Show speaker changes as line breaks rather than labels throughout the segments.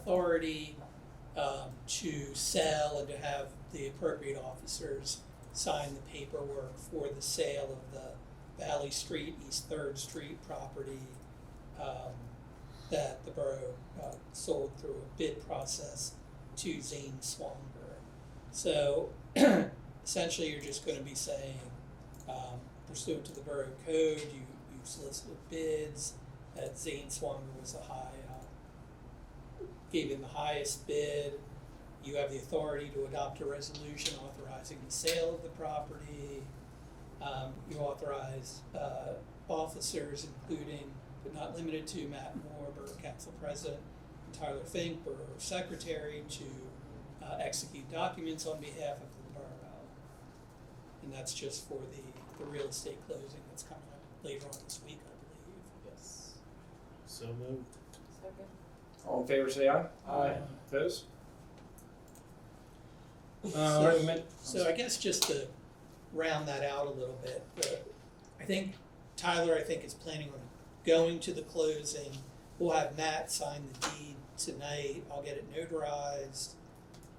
authority um, to sell and to have the appropriate officers sign the paperwork for the sale of the Valley Street, East Third Street property um, that the borough uh, sold through a bid process to Zane Swanger. So essentially, you're just gonna be saying, um, pursuant to the borough code, you, you solicited bids, that Zane Swanger was the high, uh, gave in the highest bid. You have the authority to adopt a resolution authorizing the sale of the property. Um, you authorize, uh, officers, including but not limited to Matt Moore, Borough Council President, and Tyler Fink, Borough Secretary, to, uh, execute documents on behalf of the borough. And that's just for the, the real estate closing that's coming up later on this week, I believe.
Yes.
So moved.
Second.
All in favor, say aye.
Aye.
Opposed?
So-
Uh, recommend.
So I guess just to round that out a little bit, the, I think Tyler, I think is planning on going to the closing. We'll have Matt sign the deed tonight, I'll get it notarized,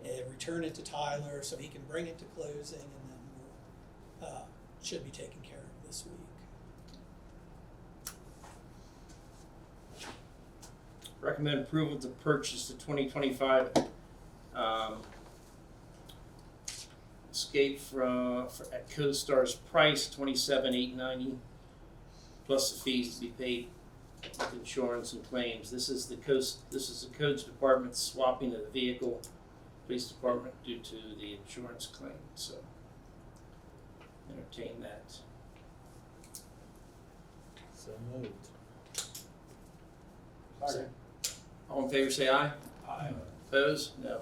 and return it to Tyler so he can bring it to closing and then we'll, uh, should be taken care of this week.
Recommend approval to purchase the twenty twenty-five, um, Escape from, for, at CoStar's price, twenty-seven eight ninety, plus the fees to be paid with insurance and claims. This is the coast, this is the codes department swapping of the vehicle, police department due to the insurance claim, so entertain that.
So moved.
Second. All in favor, say aye.
Aye.
Opposed? No.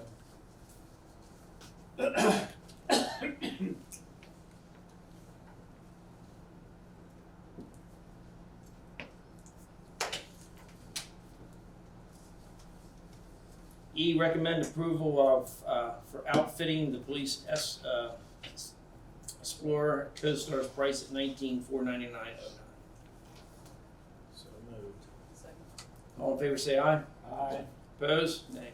E, recommend approval of, uh, for outfitting the police S, uh, Explorer CoStar's price at nineteen four ninety-nine oh nine.
So moved.
Second.
All in favor, say aye.
Aye.
Opposed? Nay.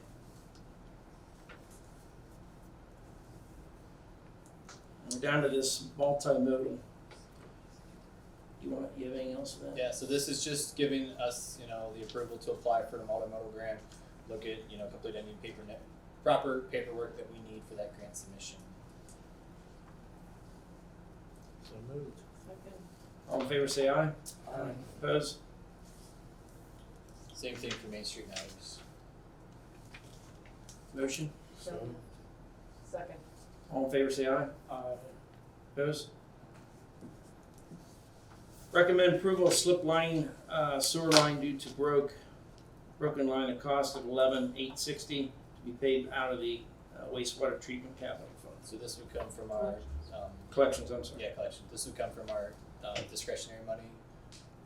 We're down to this multimodal. You want, you have anything else for that?
Yeah, so this is just giving us, you know, the approval to apply for the multimodal grant, look at, you know, complete any paper net, proper paperwork that we need for that grant submission.
So moved.
Second.
All in favor, say aye.
Aye.
Opposed?
Same thing for Main Street matters.
Motion?
So
Second.
moved.
Second.
All in favor, say aye.
Aye.
Opposed? Recommend approval of slip line, uh, sewer line due to broke, broken line at cost of eleven eight sixty to be paid out of the uh, wastewater treatment capital fund.
So this would come from our, um,
Collections, I'm sorry.
yeah, collection, this would come from our uh, discretionary money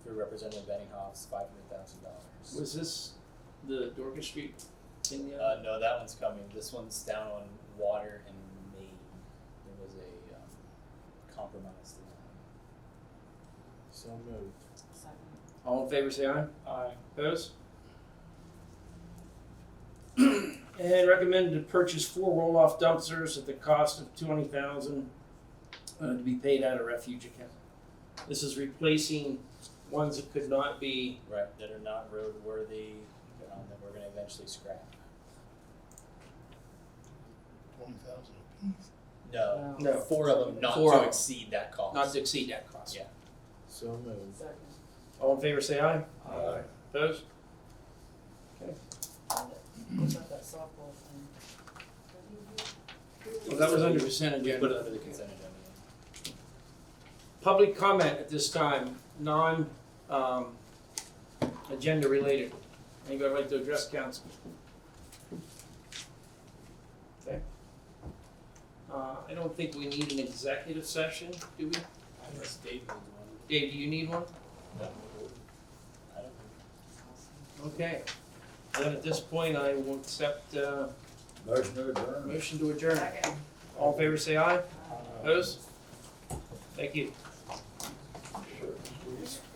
through Representative Benninghoff's five hundred thousand dollars.
Was this the Dorcas Street thing? yet?
Uh, no, that one's coming, this one's down on water and main, there was a, um, compromise there.
So moved.
Second.
All in favor, say aye.
Aye.
Opposed? And recommended to purchase four roll-off dumpsters at the cost of twenty thousand, uh, to be paid out of refuge account. This is replacing ones that could not be,
Right, that are not roadworthy, um, that we're gonna eventually scrap.
twenty thousand apiece.
No,
No.
four of them not
Four
to
of 'em.
exceed that cost.
not to exceed that cost.
Yeah.
So moved.
Second.
All in favor, say aye.
Aye.
Opposed?
What about that softball thing?
Well, that was under consent
We put it
agenda.
under the consent agenda.
Public comment at this time, non, um, agenda related. Anybody like to address council? Okay. Uh, I don't think we need an executive session, do we? Dave, do you need one?
I don't
Okay. Then at this point, I will accept, uh,
Motion to adjourn.
motion to adjourn.
Second.
All in favor, say aye.
Aye.
Opposed? Thank you.
Sure.